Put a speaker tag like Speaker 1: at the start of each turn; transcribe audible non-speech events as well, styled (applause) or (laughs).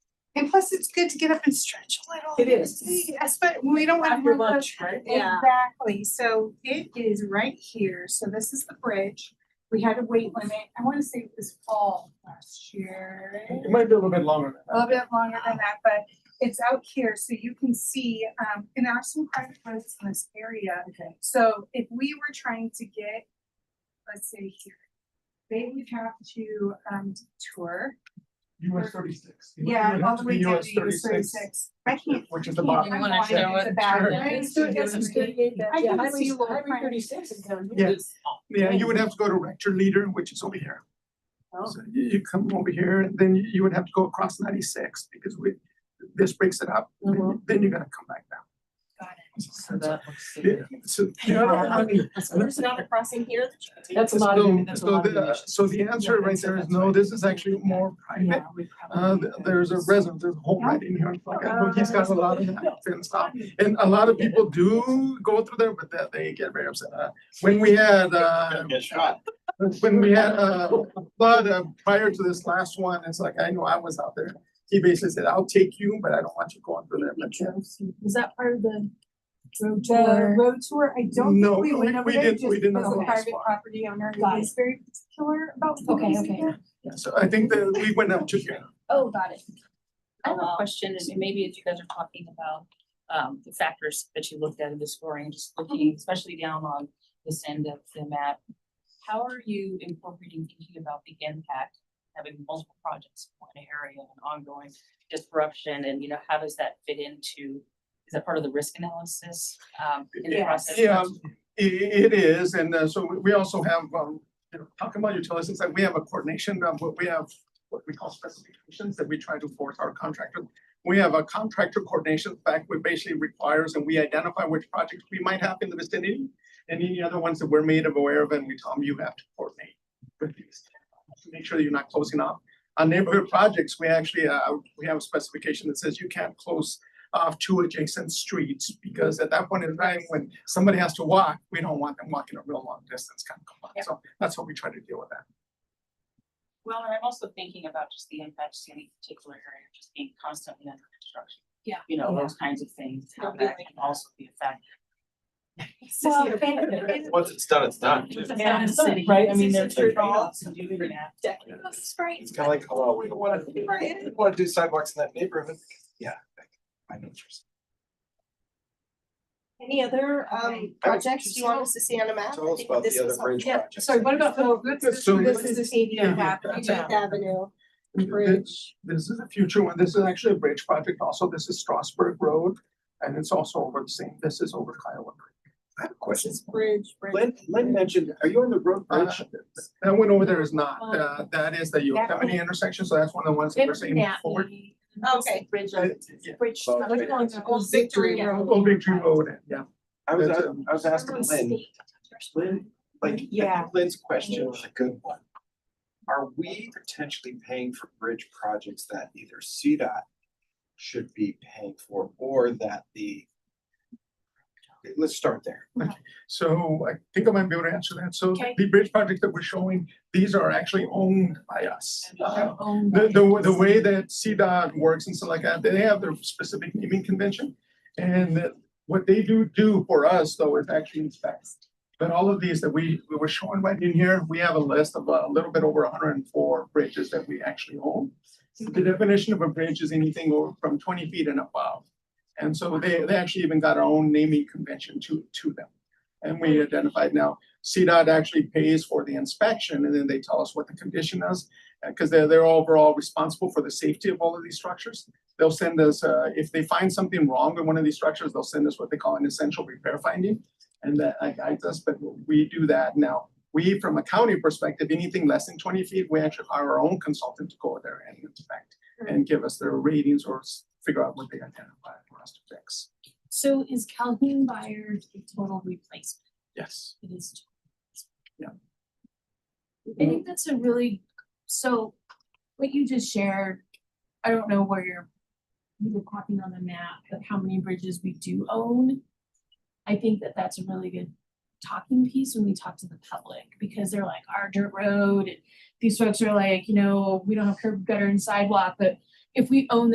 Speaker 1: And plus, it's good to get up and stretch a little.
Speaker 2: It is.
Speaker 1: But we don't want to.
Speaker 2: After
Speaker 1: run out-
Speaker 2: lunch, right?
Speaker 3: Yeah.
Speaker 1: Exactly, so it is right here, so this is the bridge. We had a weight limit, I wanna say it was fall last year.
Speaker 4: It might be a little bit longer
Speaker 1: A little bit longer than that, but it's out here, so you can see, um, and there are some private roads in this area.
Speaker 2: Okay.
Speaker 1: So if we were trying to get, let's say here, they would have to, um, tour.
Speaker 4: than that. US thirty-six. It would- it
Speaker 1: Yeah,
Speaker 4: would have
Speaker 1: all the
Speaker 4: to
Speaker 1: way
Speaker 4: be
Speaker 1: down
Speaker 4: US
Speaker 1: to US thirty-six. I can't.
Speaker 4: Which is the
Speaker 1: I can't,
Speaker 4: bottom.
Speaker 1: I'm
Speaker 3: You wanna
Speaker 1: blind,
Speaker 3: show
Speaker 1: it's
Speaker 3: it
Speaker 1: a bad
Speaker 3: to-
Speaker 1: road.
Speaker 2: It's good, it's good, it-
Speaker 1: I
Speaker 2: yeah,
Speaker 1: can
Speaker 2: highway-
Speaker 1: see Lord
Speaker 2: highway
Speaker 1: Frank.
Speaker 2: 36 is down here.
Speaker 4: Yeah. Yeah, you would have to go to Rector Leader, which is over here.
Speaker 2: Oh.
Speaker 4: So you, you come over here, and then you you would have to go across ninety-six because we, this breaks it up. then-
Speaker 2: Mhm.
Speaker 4: Then you're gonna come back down.
Speaker 1: Got
Speaker 4: So Yeah, so, you know, I mean,
Speaker 3: There's
Speaker 4: (laughs)
Speaker 3: not a crossing here that you can take.
Speaker 2: That's a lot
Speaker 4: so-
Speaker 2: of, that's a
Speaker 4: so
Speaker 2: lot of.
Speaker 4: the, uh,
Speaker 2: emissions.
Speaker 4: so the answer right there is no, this is actually more private.
Speaker 2: Yeah, we
Speaker 4: Uh,
Speaker 2: probably
Speaker 4: th- there's a
Speaker 2: could.
Speaker 4: resident, there's a home right in here, like, I know he's got a lot of that and stuff. And a lot of people do go through there, but that they get very upset. Uh, When we had, uh,
Speaker 5: Get shot.
Speaker 4: when we had, uh, flood uh, prior to this last one, it's like, I know I was out there. He basically said, I'll take you, but I don't want you going through there. But yeah.
Speaker 2: Is that part of the road
Speaker 1: The
Speaker 2: tour?
Speaker 1: road tour, I don't
Speaker 4: No,
Speaker 1: think we went
Speaker 4: we-
Speaker 1: over
Speaker 4: we
Speaker 1: there
Speaker 4: didn't-
Speaker 1: just
Speaker 4: we did
Speaker 1: because
Speaker 4: not
Speaker 1: the
Speaker 4: go as
Speaker 1: private
Speaker 4: far.
Speaker 1: property owner
Speaker 2: Got
Speaker 1: is very particular about
Speaker 2: Okay,
Speaker 1: things
Speaker 2: okay.
Speaker 1: there.
Speaker 4: Yeah, So I think that we went up to here.
Speaker 3: Oh, got it. I have
Speaker 2: Oh,
Speaker 3: a question, and maybe if you guys are talking about um the factors that you looked at in the scoring, just looking especially down on this end of the map. How are you incorporating thinking about the impact, having multiple projects in one area and ongoing disruption, and you know, how does that fit into? Is that part of the risk analysis um in the
Speaker 4: Yeah.
Speaker 3: process?
Speaker 4: Yeah, um, i- it is, and uh, so we- we also have, um, you know, talking about utilities, it's like we have a coordination, um, what we have, what we call specifications that we try to force our contractor. We have a contractor coordination fact, which basically requires, and we identify which projects we might have in the vicinity. And any other ones that we're made aware of, and we tell them you have to coordinate with these, to make sure that you're not closing off. On neighborhood projects, we actually, uh, we have a specification that says you can't close off two adjacent streets, because at that point in time, when somebody has to walk, we don't want them walking a real long distance kind of complaint. So that's what we try to deal with that.
Speaker 3: Well, and I'm also thinking about just the impacts to any particular area, just being constantly under construction.
Speaker 1: Yeah.
Speaker 3: You know,
Speaker 2: Yeah.
Speaker 3: those kinds of things, how that can also be a factor.
Speaker 1: Well,
Speaker 2: Sissy,
Speaker 1: and- and-
Speaker 5: Once it's done, it's done.
Speaker 3: It's a
Speaker 2: Yeah.
Speaker 3: fast city.
Speaker 2: Right, I mean, there's
Speaker 3: It's a
Speaker 2: trade
Speaker 3: trade-off
Speaker 2: offs.
Speaker 3: to do that.
Speaker 1: That's right.
Speaker 5: It's kind of like, hello, we don't want to, we want to do sidewalks in that neighborhood. Yeah. I know what you're saying.
Speaker 6: Any other um projects you want us to see on a map?
Speaker 5: Tell
Speaker 6: I
Speaker 5: us
Speaker 6: think
Speaker 5: about
Speaker 6: this
Speaker 5: the other
Speaker 6: is all-
Speaker 5: bridge
Speaker 6: yeah,
Speaker 5: projects.
Speaker 2: Sorry, what about the,
Speaker 1: This
Speaker 4: is- So-
Speaker 6: This is eighty
Speaker 4: Yeah.
Speaker 6: Eighth Avenue
Speaker 4: Th-
Speaker 6: Bridge.
Speaker 4: This is a future one. This is actually a bridge project. Also, this is Strasburg Road. And it's also over the same, this is over Kiowa Creek.
Speaker 5: I have a
Speaker 6: This
Speaker 5: question.
Speaker 6: is Bridge, Bridge.
Speaker 5: Lynn, Lynn mentioned, are you on the road bridge?
Speaker 4: That one over there is not, uh, that is the Yosemite intersection, so that's one of the ones that we're saying forward.
Speaker 6: Okay.
Speaker 3: Bridge
Speaker 4: Uh,
Speaker 3: of.
Speaker 4: yeah.
Speaker 6: Bridge.
Speaker 5: Oh,
Speaker 6: Old
Speaker 5: okay. Oh,
Speaker 6: Old Victory Road.
Speaker 4: Old Victory Road, yeah.
Speaker 5: I was, uh, I was asking Lynn, Lynn, like, I
Speaker 6: Yeah.
Speaker 5: think Lynn's question was a good one. Are we potentially paying for bridge projects that either CDOT should be paying for or that the? Let's start there.
Speaker 4: So I think I might be able to answer that. So
Speaker 6: Okay.
Speaker 4: the bridge project that we're showing, these are actually owned by us. Uh, The, the, the way that CDOT works and stuff like that, they have their specific naming convention. And that- what they do do for us though is actually inspect. But all of these that we, we were showing right in here, we have a list of a little bit over hundred and four bridges that we actually own. The definition of a bridge is anything over from twenty feet and above. And so they, they actually even got our own naming convention to, to them. And we identified now, CDOT actually pays for the inspection and then they tell us what the condition is because they're, they're overall responsible for the safety of all of these structures. They'll send us, uh, if they find something wrong with one of these structures, they'll send us what they call an essential repair finding. And that uh, guides us, but we do that now. We, from a county perspective, anything less than twenty feet, we actually hire our own consultant to go there and inspect and give us their ratings or s- figure out what they identify for us to fix.
Speaker 7: So is Calhoun Byard a total replacement?
Speaker 4: Yes.
Speaker 7: It is.
Speaker 4: Yeah.
Speaker 7: I think that's a really, so what you just shared, I don't know where you're, you were copying on the map, but how many bridges we do own. I think that that's a really good talking piece when we talk to the public, because they're like, our dirt road, and these folks are like, you know, we don't have curb gutter and sidewalk, but if we own